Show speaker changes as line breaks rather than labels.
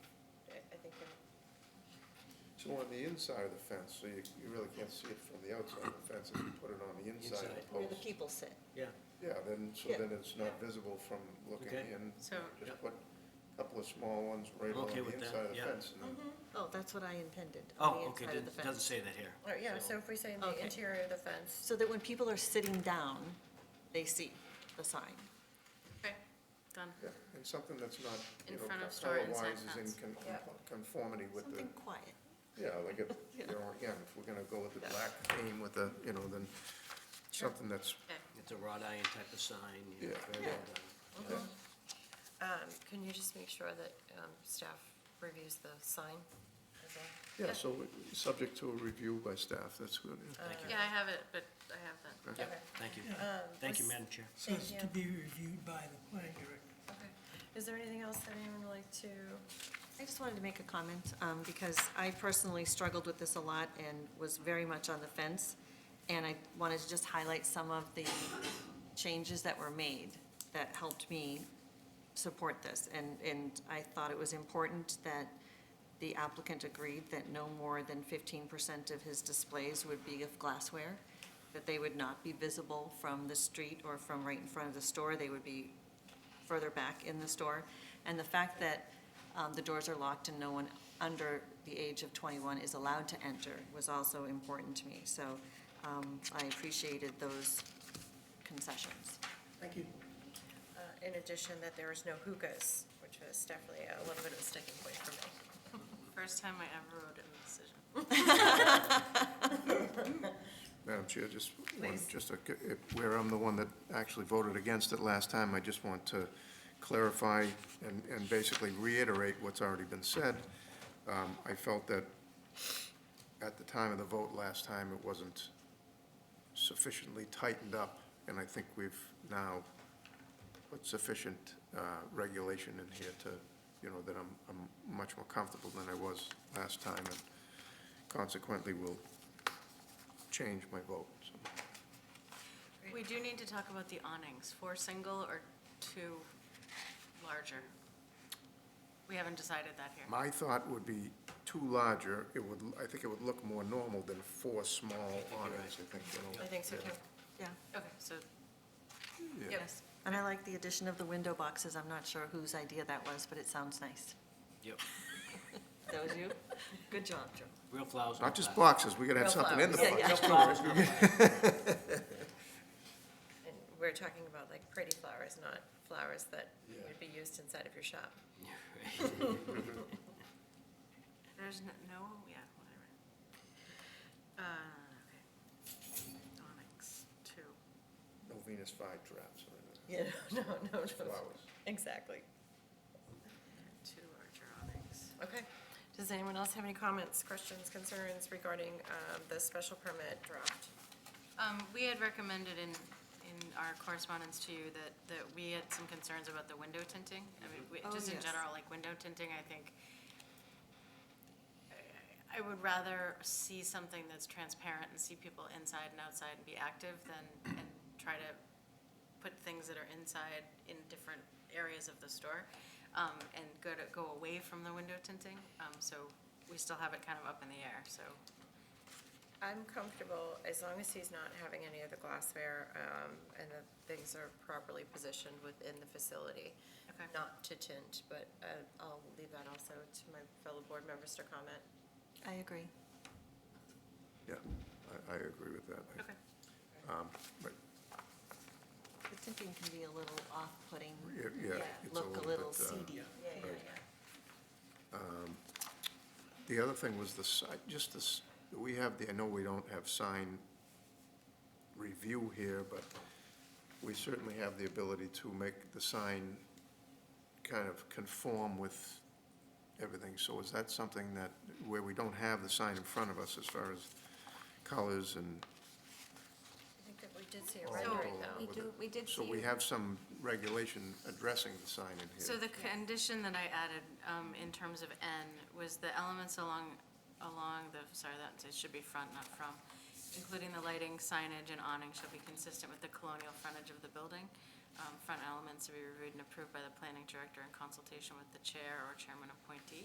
more on the inside of the fence, so you, you really can't see it from the outside of the fence. If you put it on the inside of the
Inside.
where the
post,
people sit.
yeah,
yeah, then, so
Yeah.
then it's not visible from looking
Okay.
in.
So-
Just
Yep.
put a couple of small ones right
I'm
along
okay
the
with that,
inside of the
yeah.
fence. and
Mm-hmm.
then-
Oh, that's what I intended, on the
oh, okay,
inside of the
didn't- doesn't
fence.
say that here.
All right, yeah, so if we say
Okay.
the interior of the fence,
So that when people are sitting down, they see the sign.
okay, done.
Yeah, and something that's not, you
In
know,
front of store, inside
color-wise is in
fence.
con-
Yeah.
conformity with the,
Something quiet.
yeah, like, it- you know, again, if we're gonna go with the black theme with the, you know, then something that's,
It's a wrought iron type of sign, you know,
Yeah.
very
Yeah.
well done.
Um, Can you just make sure that um, staff reviews the sign? as well?
yeah, so, we- subject to a review by staff, that's good. yeah.
Thank you,
Yeah, I have it, but I have that.
Okay.
thank you. Thank
Um,
you,
was-
Madam Chair.
Says
Thank
to be reviewed by the planning director.
Okay. Is there anything else that anyone would like to?
I just wanted to make a comment, um, because I personally struggled with this a lot and was very much on the fence. And I wanted to just highlight some of the changes that were made that helped me support this. And, and I thought it was important that the applicant agreed that no more than fifteen percent of his displays would be of glassware, that they would not be visible from the street or from right in front of the store. They would be further back in the store. And the fact that um, the doors are locked and no one under the age of 21 is allowed to enter was also important to me. So um, I appreciated those concessions.
Thank you.
uh, In addition, that there is no hookahs, which was definitely a little bit of a sticking point for me.
First time I ever wrote in the decision.
Madam Chair, just one,
Please.
just a, if- where I'm the one that actually voted against it last time, I just want to clarify and, and basically reiterate what's already been said. Um, I felt that at the time of the vote last time, it wasn't sufficiently tightened up, and I think we've now put sufficient uh, regulation in here to, you know, that I'm, I'm much more comfortable than I was last time, and consequently will change my vote. so.
We do need to talk about the awnings, four single or two larger. We haven't decided that here.
My thought would be two larger, it would, I think it would look more normal than four small awnings, I think, you know.
I think so too.
Yeah.
Okay, so,
Yeah.
yes.
And I like the addition of the window boxes. I'm not sure whose idea that was, but it sounds nice.
Yep,
That was you? Good job, Joe.
real flowers. no
Not just
flowers.
boxes, we gotta have
Real
something in the
flowers. Yeah,
box.
Real flowers, no flowers.
And we're talking about like pretty flowers, not flowers that would be used inside of your shop.
There's no, no, yeah, whatever. Uh, okay. Awnings, two.
No Venus flytraps or
Yeah, no, no,
anything,
no.
flowers.
Exactly.
two larger awnings.
Okay. Does anyone else have any comments, questions, concerns regarding um, the special permit draft?
Um, we had recommended in, in our correspondence to you that, that we had some concerns about the window tinting. I mean, we,
Oh,
just in
yes.
general, like window tinting, I think I- I would rather see something that's transparent and see people inside and outside and be active than, and try to put things that are inside in different areas of the store, um, and go to, go away from the window tinting. Um, so we still have it kind of up in the air, so.
I'm comfortable, as long as he's not having any of the glassware um, and that things are properly positioned within the facility.
Okay.
Not to tint, but uh, I'll leave that also to my fellow board members to comment.
I agree.
Yeah, I, I agree with that.
Okay.
Um, but,
The thinking can be a little off-putting,
yeah, yeah, it's a
look a
little
little
bit, uh,
seedy.
Yeah, yeah,
Right.
yeah.
The other thing was the si, just this, we have the, I know we don't have sign review here, but we certainly have the ability to make the sign kind of conform with everything. So is that something that, where we don't have the sign in front of us as far as colors and
I think that we did see a
all
rendering
all
though.
with it?
we did
So we have some regulation addressing the sign in here.
So the condition that I added um, in terms of N was the elements along, along the, sorry, that, it should be front, not from, including the lighting, signage, and awning shall be consistent with the colonial frontage of the building. Um, Front elements to be reviewed and approved by the planning director in consultation with the chair or chairman appointee.